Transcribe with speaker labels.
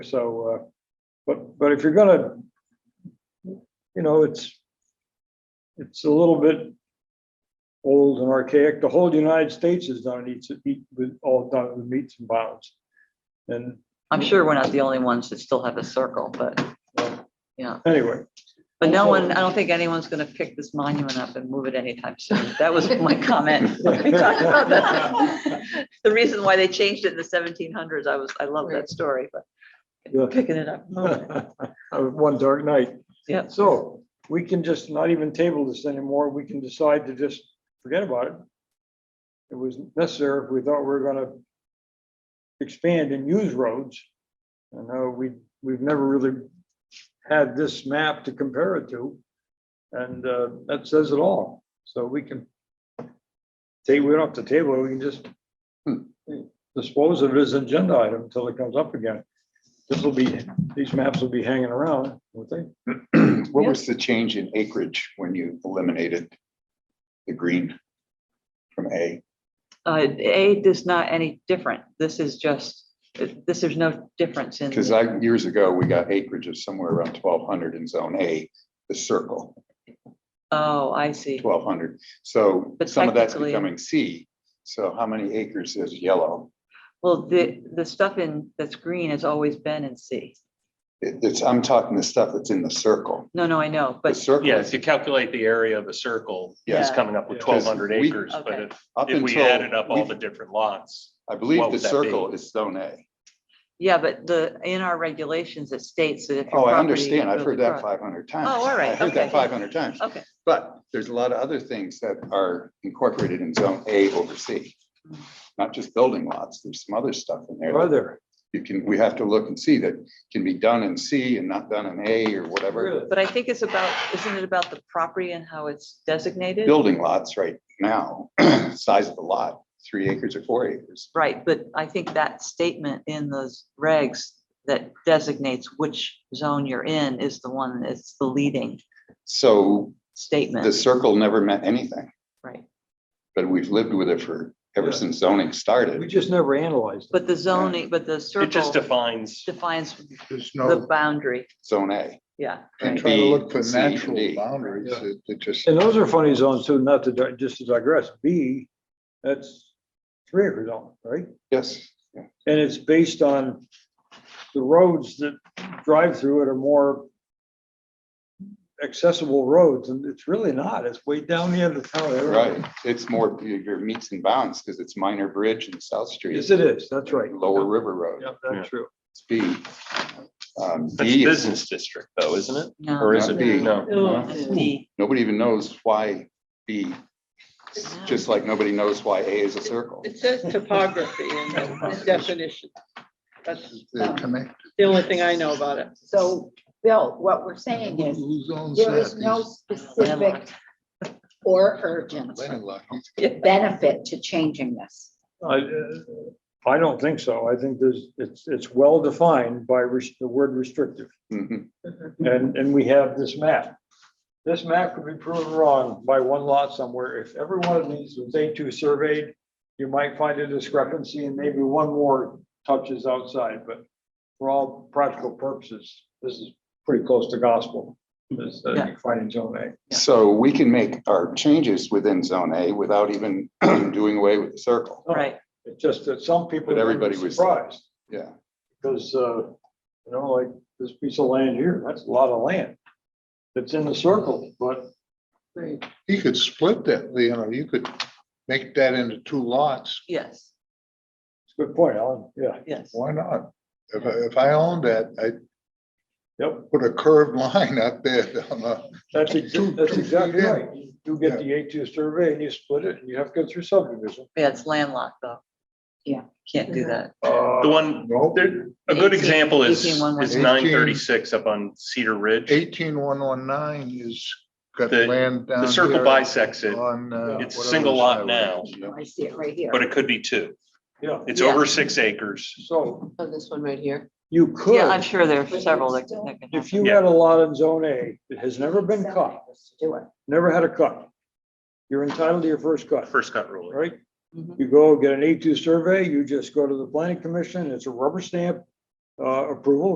Speaker 1: So, uh, but, but if you're gonna, you know, it's, it's a little bit old and archaic. The whole United States has done it, eats, eat with, all done it with meats and bounds. And
Speaker 2: I'm sure we're not the only ones that still have a circle, but,
Speaker 1: anyway,
Speaker 2: but no one, I don't think anyone's gonna pick this monument up and move it anytime soon. That was my comment. when we talked about that. The reason why they changed it in the seventeen hundreds, I was, I love that story,
Speaker 1: Yeah.
Speaker 2: but picking it up. moving it.
Speaker 1: Of one dark night.
Speaker 2: Yeah.
Speaker 1: So we can just not even table this anymore. We can decide to just forget about it. It was necessary if we thought we were gonna expand and use roads. I know we, we've never really had this map to compare it to. And uh, that says it all. So we can say we don't have to table, it. we can just dispose of it as an agenda item until it comes up again. This will be these maps will be hanging around, won't they?
Speaker 3: What
Speaker 2: Yeah.
Speaker 3: was the change in acreage when you eliminated the green from A?
Speaker 2: Uh, A is not any different. This is just, this, there's no difference in.
Speaker 3: Because
Speaker 2: the-
Speaker 3: I, years ago, we got acreage of somewhere around twelve hundred in zone A, the circle,
Speaker 2: Oh, I see.
Speaker 3: twelve hundred. So
Speaker 2: But
Speaker 3: some of that's
Speaker 2: technically-
Speaker 3: becoming C. So how many acres is yellow?
Speaker 2: Well, the, the stuff in, that's green has always been in C.
Speaker 3: It- It's, I'm talking the stuff that's in the circle.
Speaker 2: No, no, I know,
Speaker 3: The
Speaker 2: but
Speaker 3: circle,
Speaker 4: Yeah, if you calculate the area of a circle, it's
Speaker 2: Yeah.
Speaker 4: coming up with
Speaker 1: Yeah.
Speaker 4: twelve hundred
Speaker 3: Because we-
Speaker 4: acres, but
Speaker 2: Okay.
Speaker 4: if,
Speaker 3: up
Speaker 4: if we
Speaker 3: until
Speaker 4: added up all
Speaker 3: we-
Speaker 4: the different lots.
Speaker 3: I believe
Speaker 4: what
Speaker 3: the
Speaker 4: would that
Speaker 3: circle is zone A.
Speaker 2: yeah, but the, in our regulations, it states that if. your
Speaker 3: Oh, I
Speaker 2: property
Speaker 3: understand. I've
Speaker 2: goes
Speaker 3: heard that
Speaker 2: across-
Speaker 3: five hundred times.
Speaker 2: Oh, all right,
Speaker 3: I heard
Speaker 2: okay.
Speaker 3: that five hundred times.
Speaker 2: Okay,
Speaker 3: But there's a lot of other things that are incorporated in zone A over C. Not just building lots, there's some other stuff in there.
Speaker 1: Are
Speaker 3: that
Speaker 1: there?
Speaker 3: You can, we have to look and see that can be done in C and not done in A or whatever.
Speaker 2: but I think it's about, isn't it about the property and how it's designated?
Speaker 3: Building lots right now, size of the lot, three acres or four acres.
Speaker 2: Right, but I think that statement in those regs that designates which zone you're in is the one that's the leading
Speaker 3: So the
Speaker 2: statement,
Speaker 3: circle never meant anything,
Speaker 2: right?
Speaker 3: but we've lived with it for, ever
Speaker 1: Yeah.
Speaker 3: since zoning
Speaker 1: We
Speaker 3: started.
Speaker 1: just never analyzed it.
Speaker 2: But the zoning, but the
Speaker 4: It
Speaker 2: circle
Speaker 4: just defines,
Speaker 2: defines
Speaker 5: There's
Speaker 2: the
Speaker 5: no,
Speaker 2: boundary,
Speaker 3: Zone A.
Speaker 2: yeah.
Speaker 5: and
Speaker 2: right.
Speaker 5: try to
Speaker 3: B,
Speaker 5: look for
Speaker 3: C, and D.
Speaker 5: natural boundaries,
Speaker 1: Yeah.
Speaker 5: it it just,
Speaker 1: And those are funny zones too, not to, di- just to digress. B, that's three acre zone, right?
Speaker 3: Yes.
Speaker 1: And it's based on the roads that drive through it are more accessible roads and it's really not. It's way down the end of town. I don't know.
Speaker 3: Right. It's more your your meets and bounds because it's Minor Bridge and South Street.
Speaker 1: Yes, it is. That's right.
Speaker 3: Lower River Road,
Speaker 1: Yeah, that's true.
Speaker 3: it's B. Um,
Speaker 4: that's
Speaker 3: B is-
Speaker 4: business district though, isn't it?
Speaker 2: No.
Speaker 4: Or is it?
Speaker 3: B.
Speaker 4: No.
Speaker 3: No.
Speaker 2: it's D.
Speaker 3: Nobody even knows why B, just like nobody knows why A is a circle.
Speaker 6: It says topography in the definition. That's
Speaker 5: they're connected.
Speaker 6: the only thing I know about it.
Speaker 7: So, Bill, what we're saying is,
Speaker 5: Who owns
Speaker 7: there is
Speaker 5: that?
Speaker 7: no
Speaker 5: These
Speaker 7: specific or urgent
Speaker 5: landlocked.
Speaker 7: benefit to changing this.
Speaker 1: I, uh, I don't think so. I think there's, it's, it's well defined by res- the word restrictive.
Speaker 3: Mhm.
Speaker 1: And, and we have this map. This map could be proven wrong by one lot somewhere. If every one of these was A two surveyed, you might find a discrepancy and maybe one more touches outside, but for all practical purposes, this is pretty close to gospel. This, uh, you find in zone A.
Speaker 3: So we can make our changes within zone A without even doing away with the circle.
Speaker 2: Right,
Speaker 1: It's just that some people.
Speaker 3: But everybody
Speaker 1: were
Speaker 3: was-
Speaker 1: Surprised.
Speaker 3: Yeah,
Speaker 1: Because, uh, you know, like this piece of land here, that's a lot of land. It's in the circle, but
Speaker 5: You could split that, you know, you could make that into two lots,
Speaker 2: yes,
Speaker 1: it's a good point, Alan. Yeah,
Speaker 2: yes.
Speaker 5: why not? If, I- if I owned that, I'd
Speaker 1: yep.
Speaker 5: put a curved line up there down the,
Speaker 1: That's, ex- that's exactly right. You get
Speaker 5: Yeah.
Speaker 1: the A two survey and you split it and you have to go through subdivision.
Speaker 2: Yeah, it's landlocked though.
Speaker 7: Yeah.
Speaker 2: Can't do that.
Speaker 1: Uh,
Speaker 4: The one,
Speaker 5: no,
Speaker 4: there, a
Speaker 2: 18,
Speaker 4: good example is,
Speaker 2: 18,
Speaker 4: is nine thirty-six up on Cedar Ridge.
Speaker 5: eighteen one one nine is got
Speaker 4: The-
Speaker 5: land down.
Speaker 3: uh,
Speaker 4: The circle
Speaker 5: here
Speaker 4: bisects it,
Speaker 5: on, uh,
Speaker 4: It's a
Speaker 5: whatever
Speaker 4: single lot
Speaker 5: highway
Speaker 4: now.
Speaker 5: is, yeah.
Speaker 7: I see it right here.
Speaker 4: but it could be two.
Speaker 1: Yeah,
Speaker 4: It's
Speaker 2: Yeah.
Speaker 4: over six acres.
Speaker 1: so
Speaker 6: On Oh, this one right here.
Speaker 1: you
Speaker 2: Yeah, I'm
Speaker 1: could,
Speaker 2: sure there are several that that can happen.
Speaker 1: if you had a lot in zone A that has never been cut,
Speaker 7: Do it.
Speaker 1: never had a cut, you're entitled to your first cut.
Speaker 4: First cut ruling.
Speaker 1: right?
Speaker 2: Mhm.
Speaker 1: You go get an A2 survey, you just go to the planning commission, it's a rubber stamp uh, approval,